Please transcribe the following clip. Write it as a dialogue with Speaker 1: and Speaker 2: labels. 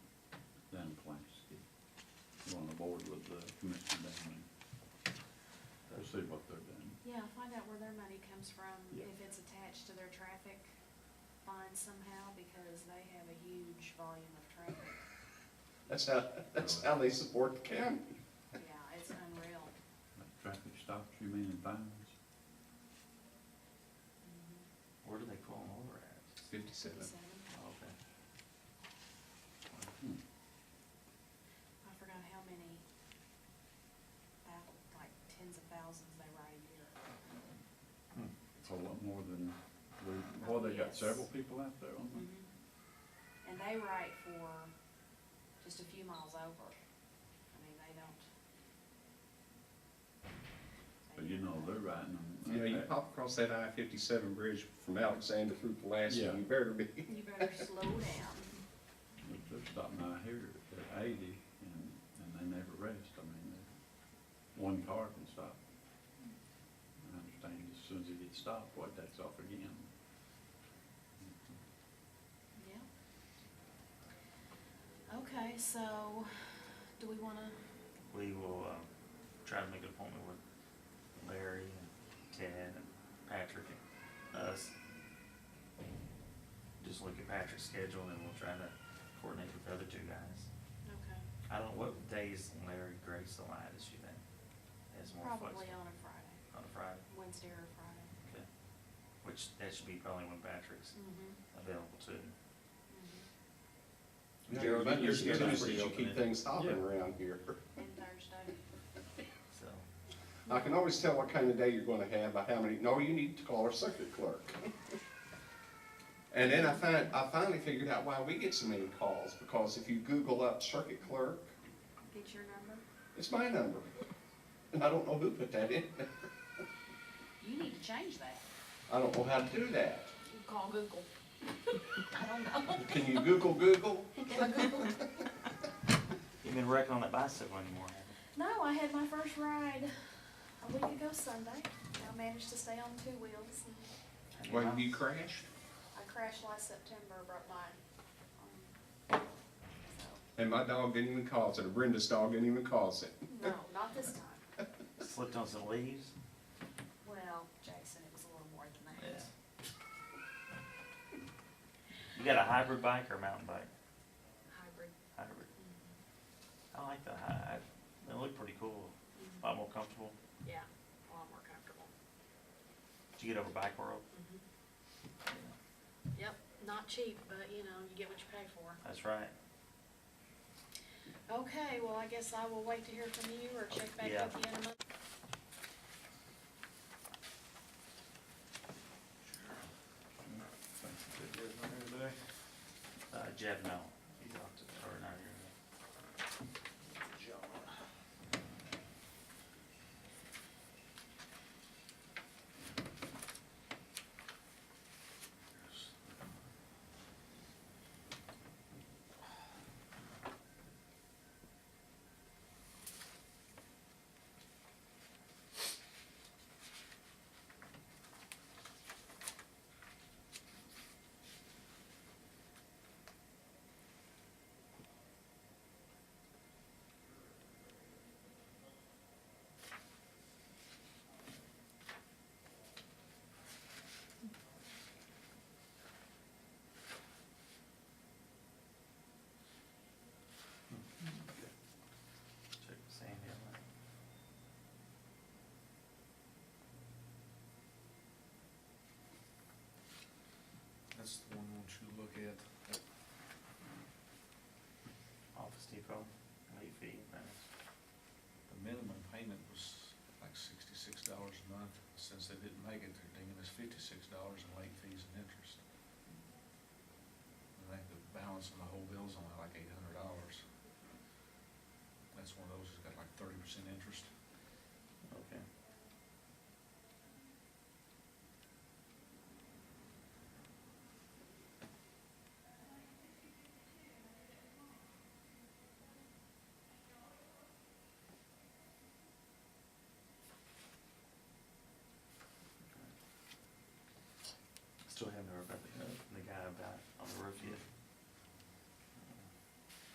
Speaker 1: board with uh, Commissioner Damon. We'll see what they're doing.
Speaker 2: Yeah, find out where their money comes from,
Speaker 1: Yeah.
Speaker 2: if it's attached to their traffic fine somehow, because they have a huge volume of traffic.
Speaker 3: That's how, that's
Speaker 1: Uh,
Speaker 3: how they support the county.
Speaker 2: Yeah, it's unreal.
Speaker 1: Like traffic stops, you mean, and fines?
Speaker 4: Where do they pull them over at?
Speaker 3: Fifty-seven.
Speaker 2: Fifty-seven.
Speaker 4: Oh, Okay.
Speaker 1: Hmm.
Speaker 2: I forgot how many, thou- like tens of thousands they write a year.
Speaker 4: Hmm.
Speaker 1: It's a lot more than, we- well, they got
Speaker 2: Yes.
Speaker 1: several people out there on them.
Speaker 2: Mhm. And they write for just a few miles over. I mean, they don't. they
Speaker 1: But you
Speaker 2: don't-
Speaker 1: know, they're riding them.
Speaker 3: You know, you pop across that I fifty-seven bridge from Alexander through Pulaski,
Speaker 1: Yeah.
Speaker 3: you better be.
Speaker 2: You better slow down.
Speaker 1: If They're stopping out here at eighty and, and they never rest. I mean, they- one car can stop. I understand as soon as it gets stopped, what, that's off again.
Speaker 2: Yeah. Okay, so, do we wanna,
Speaker 4: We will, um, try to make an appointment with Larry and Ted and Patrick and us. Just look at Patrick's schedule and then we'll try to coordinate with the other two guys.
Speaker 2: okay,
Speaker 4: I don't, know what days Larry Grace allowed is she then? Has more
Speaker 2: probably
Speaker 4: flexible
Speaker 2: on a Friday,
Speaker 4: on a Friday,
Speaker 2: Wednesday or Friday.
Speaker 4: okay? Which, that should be probably when Patrick's
Speaker 2: Mm-hmm,
Speaker 4: available too.
Speaker 2: mm-hmm.
Speaker 3: Gerald, you're
Speaker 4: you're- you're
Speaker 3: good
Speaker 4: pretty
Speaker 3: you
Speaker 4: open
Speaker 3: keep
Speaker 4: then.
Speaker 3: things hopping
Speaker 1: Yeah.
Speaker 3: around here.
Speaker 2: And Thursday.
Speaker 4: So,
Speaker 3: I can always tell what kind of day you're gonna have by how many, no, you need to call our circuit clerk. And then I find, I finally figured out why we get so many calls, because if you Google up circuit clerk,
Speaker 2: Get your number.
Speaker 3: it's my number. And I don't know who put that in.
Speaker 2: You need to change that.
Speaker 3: I don't know how to do that.
Speaker 2: You Call Google. I don't know.
Speaker 3: Can you Google Google?
Speaker 4: you've been wrecking on that bicycle anymore, have
Speaker 2: No, I had my first ride a week ago Sunday. I managed to stay on two wheels. and
Speaker 4: you?
Speaker 3: Well, you crashed?
Speaker 2: I crashed last September, broke mine. Um, so,
Speaker 3: And my dog didn't even cause it, or Brenda's dog didn't even cause it.
Speaker 2: No, not this time.
Speaker 4: Slipped on some leaves?
Speaker 2: Well, Jason, it was a little more than
Speaker 4: Yeah.
Speaker 2: that.
Speaker 4: You got a hybrid bike or a mountain bike?
Speaker 2: Hybrid.
Speaker 4: Hybrid. I like the hy, they look pretty cool, a lot more comfortable.
Speaker 2: Yeah, a lot more comfortable.
Speaker 4: Did you get over Bike World?
Speaker 2: Mm-hmm. Yep, not cheap, but you know, you get what you pay for.
Speaker 4: That's right.
Speaker 2: Okay, well, I guess I will wait to hear from you or check back
Speaker 4: Yeah.
Speaker 2: with you in a month.
Speaker 4: Uh, Jeff, no, he talked to, or not here. Check with Sandy uh, on that.
Speaker 5: That's the one I want you to look at.
Speaker 4: Office Depot, late fee, that's,
Speaker 5: The minimum payment was like sixty-six dollars a month. Since they didn't make it, they're dinging us fifty-six dollars in late fees and interest. And I think the balance on the whole bill's only
Speaker 4: uh,
Speaker 5: like